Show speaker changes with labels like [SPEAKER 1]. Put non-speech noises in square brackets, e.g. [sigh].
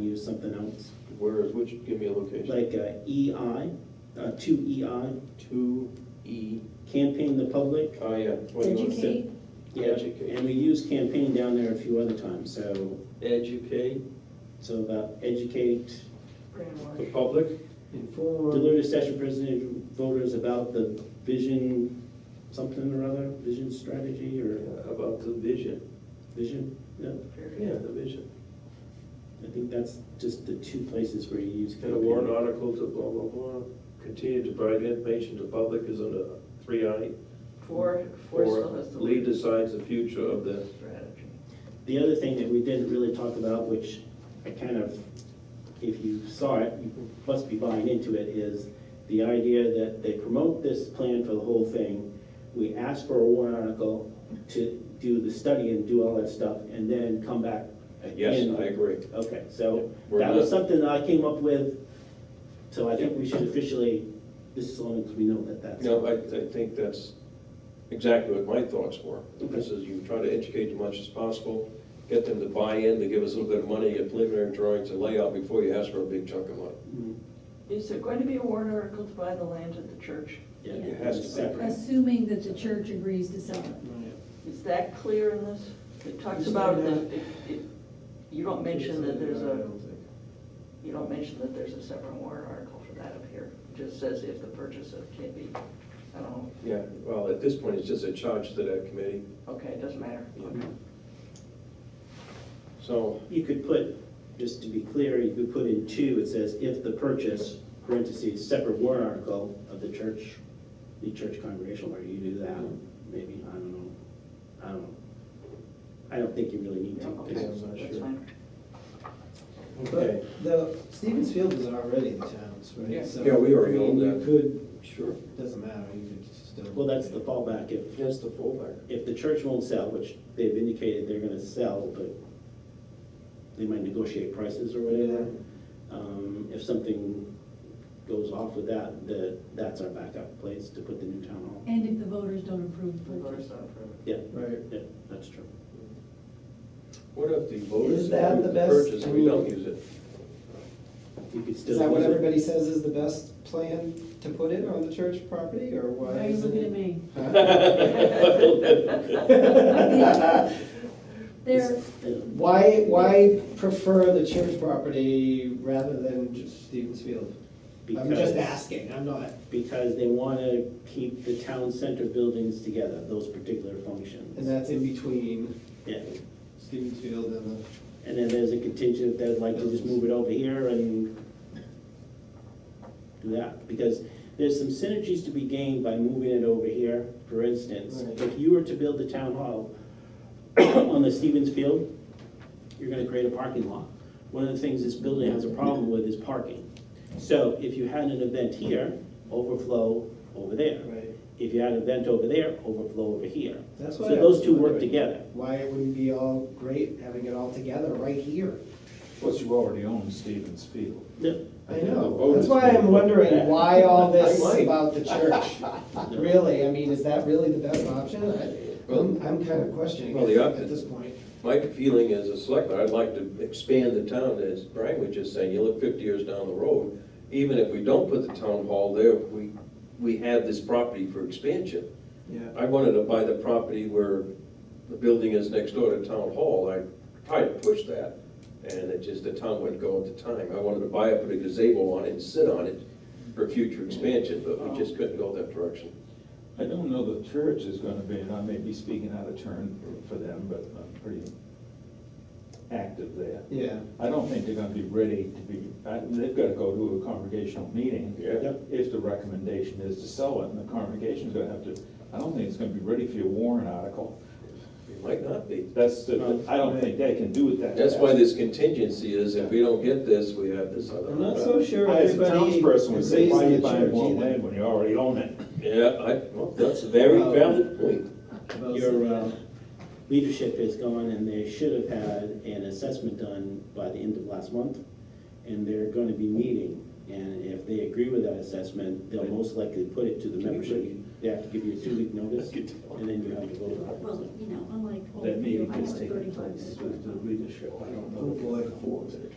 [SPEAKER 1] use something else,
[SPEAKER 2] Where is, which, give me a location.
[SPEAKER 1] like uh, EI, uh, two EI,
[SPEAKER 2] Two E,
[SPEAKER 1] campaign the public.
[SPEAKER 2] oh, yeah. what do you wanna say?
[SPEAKER 3] Educate,
[SPEAKER 1] Yeah,
[SPEAKER 2] Educate.
[SPEAKER 1] And we use campaign down there a few other times, so,
[SPEAKER 2] Educate
[SPEAKER 1] so about educate,
[SPEAKER 2] the
[SPEAKER 3] brainwash.
[SPEAKER 2] public, inform,
[SPEAKER 1] deliver to session president voters about the vision, something or other, vision strategy
[SPEAKER 2] uh,
[SPEAKER 1] or
[SPEAKER 2] about the vision.
[SPEAKER 1] vision. Yeah,
[SPEAKER 2] Yeah, the vision.
[SPEAKER 1] I think that's just the two places where you use.
[SPEAKER 2] And a
[SPEAKER 1] campaign.
[SPEAKER 2] warrant article to blah, blah, blah. Continue to provide information to public is under three I.
[SPEAKER 3] Four, four
[SPEAKER 2] Or
[SPEAKER 3] still has the
[SPEAKER 2] lead
[SPEAKER 3] word
[SPEAKER 2] decides the future of the,
[SPEAKER 3] strategy.
[SPEAKER 1] The other thing that we didn't really talk about, which I kind of, if you saw it, you must be buying into it, is the idea that they promote this plan for the whole thing. We ask for a warrant article to do the study and do all that stuff, and then come back.
[SPEAKER 2] yes,
[SPEAKER 1] in-
[SPEAKER 2] I agree.
[SPEAKER 1] Okay, so
[SPEAKER 2] We're
[SPEAKER 1] that was
[SPEAKER 2] not-
[SPEAKER 1] something that I came up with, so I think we should officially, this is only because we know that that's.
[SPEAKER 2] No, I, I think that's exactly what my thoughts were. This is, you try to educate as much as possible, get them to buy in, to give us a little bit of money, and preliminary drawings and layout before you ask for a big chunk of money.
[SPEAKER 1] Mm,
[SPEAKER 3] Is there going to be a warrant article to buy the land at the church?
[SPEAKER 1] Yeah,
[SPEAKER 2] It has to be.
[SPEAKER 1] separate.
[SPEAKER 4] Assuming that the church agrees to sell it.
[SPEAKER 3] Is that clear in this? It talks about the, it- it- you don't mention that there's a, you don't mention that there's a separate warrant article for that up here. It Just says if the purchase of can be, I don't know,
[SPEAKER 2] Yeah, well, at this point, it's just a charge to that committee,
[SPEAKER 3] okay, it doesn't matter.
[SPEAKER 2] Yeah. so.
[SPEAKER 1] You could put, just to be clear, you could put in two, it says, if the purchase, parentheses, separate warrant article of the church, the church congregation, where you do that, maybe, I don't know, I don't know. I don't think you really need
[SPEAKER 3] Yeah,
[SPEAKER 1] to.
[SPEAKER 3] okay,
[SPEAKER 2] I'm not
[SPEAKER 3] that's
[SPEAKER 2] sure.
[SPEAKER 3] fine.
[SPEAKER 2] Okay.
[SPEAKER 5] But the, Stevens Field is already the town's, right?
[SPEAKER 3] Yeah.
[SPEAKER 5] So,
[SPEAKER 2] Yeah, we already
[SPEAKER 5] I mean,
[SPEAKER 2] own
[SPEAKER 5] you
[SPEAKER 2] that.
[SPEAKER 5] could,
[SPEAKER 2] Sure.
[SPEAKER 5] doesn't matter, you could still.
[SPEAKER 1] Well, that's the fallback, if,
[SPEAKER 2] That's the fallback.
[SPEAKER 1] if the church won't sell, which they've indicated they're gonna sell, but they might negotiate prices or whatever. Um, if something goes off with that, the, that's our backup place to put the new town hall.
[SPEAKER 4] And if the voters don't approve the
[SPEAKER 3] The voters
[SPEAKER 4] purchase.
[SPEAKER 3] don't approve it.
[SPEAKER 1] Yeah,
[SPEAKER 5] Right.
[SPEAKER 1] yeah, that's true.
[SPEAKER 2] What if the voters
[SPEAKER 5] Is that
[SPEAKER 2] approve
[SPEAKER 5] the
[SPEAKER 2] the
[SPEAKER 5] best?
[SPEAKER 2] purchase,
[SPEAKER 5] I
[SPEAKER 2] we don't
[SPEAKER 5] mean-
[SPEAKER 2] use it?
[SPEAKER 1] You could still.
[SPEAKER 5] Is that what
[SPEAKER 1] use it.
[SPEAKER 5] everybody says is the best plan to put it on the church property, or why
[SPEAKER 4] Why are you
[SPEAKER 5] isn't
[SPEAKER 4] looking
[SPEAKER 5] it?
[SPEAKER 4] at me?
[SPEAKER 2] [laughs]
[SPEAKER 4] There,
[SPEAKER 5] [laughs] Why, why prefer the church property rather than just Stevens Field? I'm
[SPEAKER 1] Because-
[SPEAKER 5] just asking, I'm not,
[SPEAKER 1] Because they want to keep the town center buildings together, those particular
[SPEAKER 5] and
[SPEAKER 1] functions.
[SPEAKER 5] that's in between
[SPEAKER 1] Yeah,
[SPEAKER 5] Stevens Field and the,
[SPEAKER 1] and then there's a contingent that would like to just move it over here and do that, because there's some synergies to be gained by moving it over here. For instance,
[SPEAKER 5] Right.
[SPEAKER 1] if you were to build the town hall [coughs] on the Stevens Field, you're gonna create a parking lot. One of the things this building has a problem with is parking. So if you had an event here, overflow over there.
[SPEAKER 5] right,
[SPEAKER 1] If you had an event over there, overflow over here.
[SPEAKER 5] that's
[SPEAKER 1] So
[SPEAKER 5] why. I
[SPEAKER 1] those
[SPEAKER 5] was
[SPEAKER 1] two work
[SPEAKER 5] wondering
[SPEAKER 1] together.
[SPEAKER 5] Why it wouldn't be all great having it all together right here?
[SPEAKER 6] Plus, you already own Stevens Field.
[SPEAKER 1] No,
[SPEAKER 5] I
[SPEAKER 6] The
[SPEAKER 5] know,
[SPEAKER 6] vote
[SPEAKER 5] that's
[SPEAKER 6] is
[SPEAKER 5] why I'm
[SPEAKER 6] made.
[SPEAKER 5] wondering why all this
[SPEAKER 2] I might.
[SPEAKER 5] about the church. Really, I mean, is that really the best option? I- I'm, I'm kind of questioning
[SPEAKER 2] Well,
[SPEAKER 5] it
[SPEAKER 2] the
[SPEAKER 5] at
[SPEAKER 2] option-
[SPEAKER 5] this point.
[SPEAKER 2] My feeling as a selectman, I'd like to expand the town, as Brian was just saying, you look fifty years down the road, even if we don't put the town hall there, we, we have this property for expansion.
[SPEAKER 5] Yeah.
[SPEAKER 2] I wanted to buy the property where the building is next door to town hall, I tried to push that, and it just, the town wouldn't go at the time. I wanted to buy it, put a gazebo on it, and sit on it for future expansion, but we just couldn't go that direction.
[SPEAKER 6] I don't know the church is gonna be, and I may be speaking out of turn for them, but I'm pretty active there.
[SPEAKER 5] Yeah,
[SPEAKER 6] I don't think they're gonna be ready to be, I- they've gotta go to a congregational meeting.
[SPEAKER 2] Yeah.
[SPEAKER 6] If the recommendation is to sell it, and the congregation's gonna have to, I don't think it's gonna be ready for your warrant article.
[SPEAKER 2] It might not be.
[SPEAKER 6] That's, the. I don't think they can do it that
[SPEAKER 2] That's
[SPEAKER 6] fast.
[SPEAKER 2] why this contingency is, if we don't get this, we have this other.
[SPEAKER 5] I'm not so sure
[SPEAKER 6] I, As a
[SPEAKER 5] everybody
[SPEAKER 6] townsperson would say,
[SPEAKER 5] agrees
[SPEAKER 6] why are
[SPEAKER 5] on
[SPEAKER 6] you
[SPEAKER 5] the
[SPEAKER 6] buying
[SPEAKER 5] church
[SPEAKER 6] more
[SPEAKER 5] either.
[SPEAKER 6] land when you already own it?
[SPEAKER 2] Yeah, I, well, that's a very valid point.
[SPEAKER 5] About
[SPEAKER 1] Your
[SPEAKER 5] some-
[SPEAKER 1] uh, leadership is gone, and they should have had an assessment done by the end of last month, and they're going to be meeting. And if they agree with that assessment, they'll most likely put it to the membership. They have to give you a two-week [laughs] notice, and then you have to vote on it.
[SPEAKER 4] well, you know, unlike old
[SPEAKER 6] That
[SPEAKER 4] people,
[SPEAKER 6] meeting
[SPEAKER 4] I have
[SPEAKER 6] is
[SPEAKER 4] a
[SPEAKER 6] taking
[SPEAKER 4] thirty-five
[SPEAKER 6] place
[SPEAKER 4] minute.
[SPEAKER 6] with the leadership, I don't know.
[SPEAKER 5] Oh,
[SPEAKER 6] if
[SPEAKER 5] boy.
[SPEAKER 6] the board's-